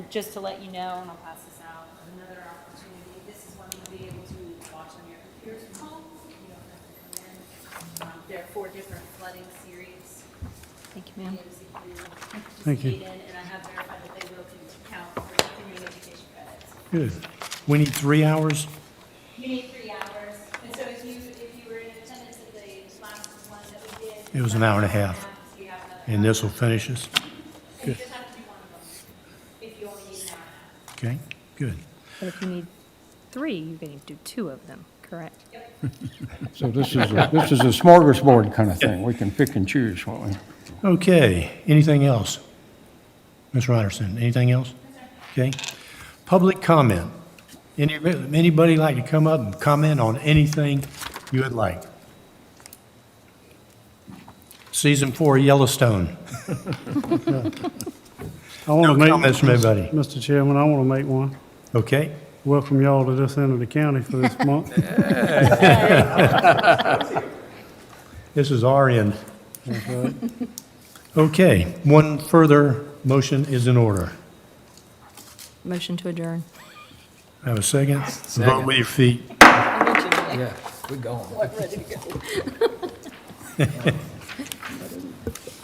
just to let you know, and I'll pass this out, another opportunity, this is one you'll be able to watch on your computers from home, you don't have to come in. Um, There are four different flooding series. Thank you, ma'am. Thank you. participated in, And I have verified that they will count for continuing education credits. Good. We need three hours? You need three hours, and so if you, if you were in attendance at the last one that we did. It was an hour and a half. You have another And this will finish us? hour. You just have to do one of them, if you only need an hour and a half. Okay, good. But if you need three, you're going to do two of them, correct? So this is, a- this is a smorgasbord kind of thing. We can pick and choose, won't we? Okay, anything else? Ms. Ryerson, anything else? Okay. Public comment. Any Anybody like to come up and comment on anything you would like? Season four Yellowstone. I want to No make comments from anybody. Mr. Chairman, I want to make one. Okay? Welcome y'all to this end of the county for this month. This is our end. Okay, one further motion is in order. Motion to adjourn. Have a second? Vote with your feet. Yeah, we're going.